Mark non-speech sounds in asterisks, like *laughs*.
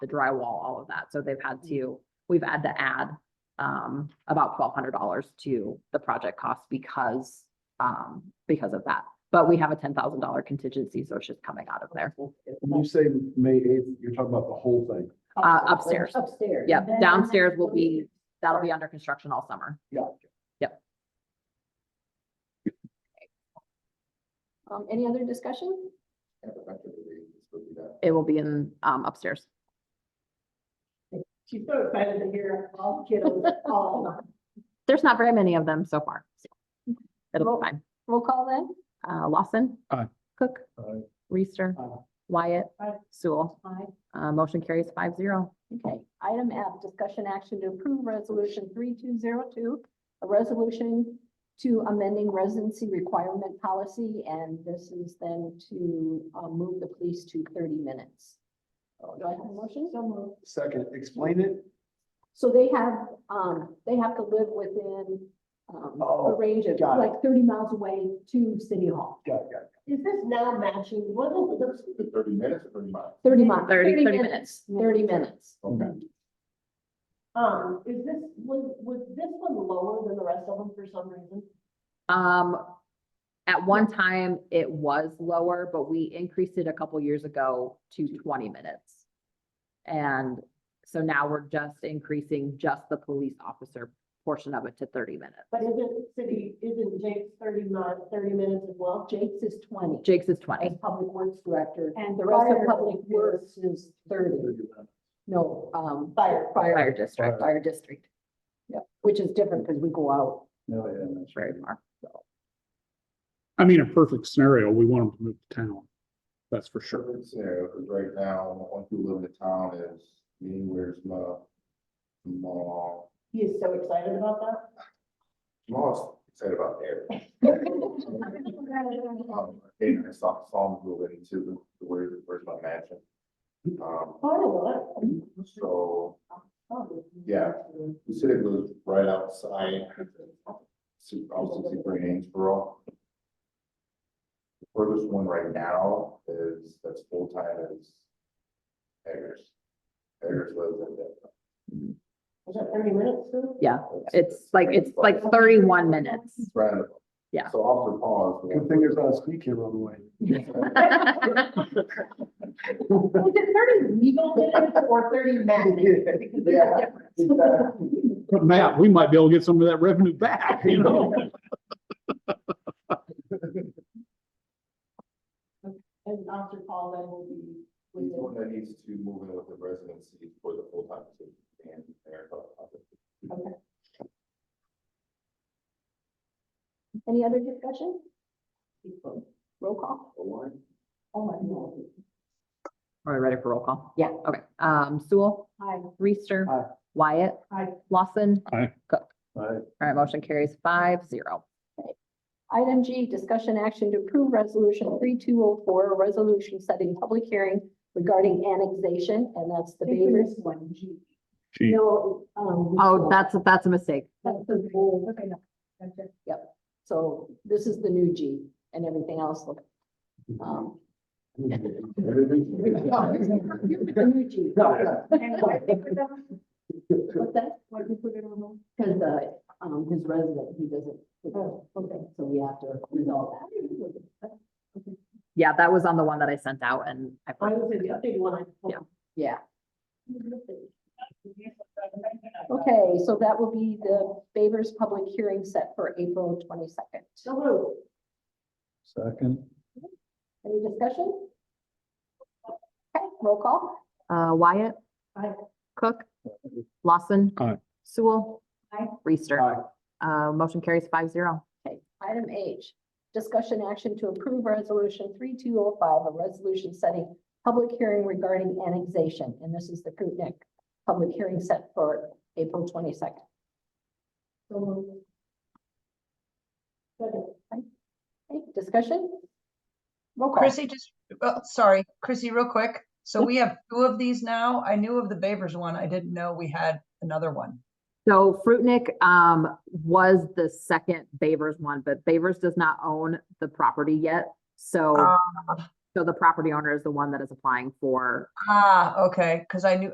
the drywall, all of that. So they've had to, we've had to add um, about twelve hundred dollars to the project cost because, um, because of that. But we have a ten thousand dollar contingency, so it's just coming out of there. When you say May eighth, you're talking about the whole thing. Uh, upstairs. Upstairs. Yep, downstairs will be, that'll be under construction all summer. Yeah. Um, any other discussion? It will be in, um, upstairs. She's so excited to hear all the *laughs* kiddos, all of them. There's not very many of them so far. so It'll be fine. Roll call then? Uh, Lawson. Aye. Cook. Aye. Reister. Aye. Wyatt. Aye. Sewell. Aye. Uh, motion carries five zero. Okay, item F, discussion action to approve resolution three two zero two, a resolution to amending residency requirement policy, and this is then to, uh, move the police to thirty minutes. So Do I have a motion? Second, explain it. So they have, um, they have to live within, um, a Oh, range of got it. like thirty miles away to City Hall, Got it, got it. Is this now matching, what is the difference between Thirty minutes or thirty miles? thirty miles. 30 30 minutes. Thirty minutes. Okay. Um, is this, was, was this one lower than the rest of them for some reason? Um, at one time, it was lower, but we increased it a couple years ago to twenty minutes. And so now we're just increasing just the police officer portion of it to thirty minutes. But isn't city, isn't Jake's thirty mon- 30 minutes as well? Jake's is twenty Jake's is as twenty. Public Works Director, And the rest of Public Works is thirty, Mm-hmm. no, um, Fire. fire, Fire district, fire district. Yeah, which is different because we go out. No, yeah. It's very far. I mean, a perfect scenario, we want them to move to town. That's for sure. Perfect scenario, because right now, once you live in the town is, me, where's my, my, He is so excited about that. most excited about everything. Um, Hey, I saw, saw him move into the, where, where's my mansion? Um, Oh, I know that. so, Oh. yeah, the city was right outside, super, also super Hainesboro. The furthest one right now is, that's full-time is Eggers. Eggers lives in that. Is that thirty minutes too? *laughs* Yeah, it's like, it's like thirty-one minutes. *laughs* Roundabout. Yeah. So Officer Paul is. Good thing there's not a ski camera on the way. Is it thirty legal minutes or *laughs* thirty minutes? Because there's a Yeah. difference. But Matt, we might be able to get some of that revenue back, you know? And Dr. Paul then will be He's the one with that needs to move in with the residency for the full time position and there. Any other discussion? people. Roll call? Oh, my God. Are we ready for roll call? Yeah. Okay, um, Sewell, Hi. Reister. Aye. Wyatt. Aye. Lawson. Aye. Cook. Right. All right, motion carries five zero. Item G, discussion action to approve resolution three two oh four, a resolution setting public hearing regarding annexation, and that's the Babers. one, G. Gee. No, um. Oh, that's, that's a mistake. That's the whole. Okay, no. So this is the new G and everything else. look, Um, the new G. What's that? Why did you put it on hold? Because the, um, his resident, he doesn't. Oh, okay. So we have to resolve that. Yeah, that was on the one that I sent out and I. I was in the updated one. I- Yeah. Yeah. Okay, so that will be the Babers public hearing set for April twenty-second. So moved. Second. Any discussion? Okay, roll call. Uh, Wyatt. Aye. Cook. Lawson. Aye. Sewell. Aye. Reister. Aye. Uh, motion carries five zero. Okay, item H, discussion action to approve resolution three two oh five, a resolution setting public hearing regarding annexation, and this is the Krupnik public hearing set for April twenty-second. So moved. Second. Okay, discussion? Roll call. Chrissy, just, oh, sorry, Chrissy, real quick. So we have two of these now. I knew of the Babers one. I didn't know we had another one. So Fruitnik, um, was the second Bavers one, but Bavers does not own the property yet. So, Ah. so the property owner is the one that is applying for Ah, okay, because I knew,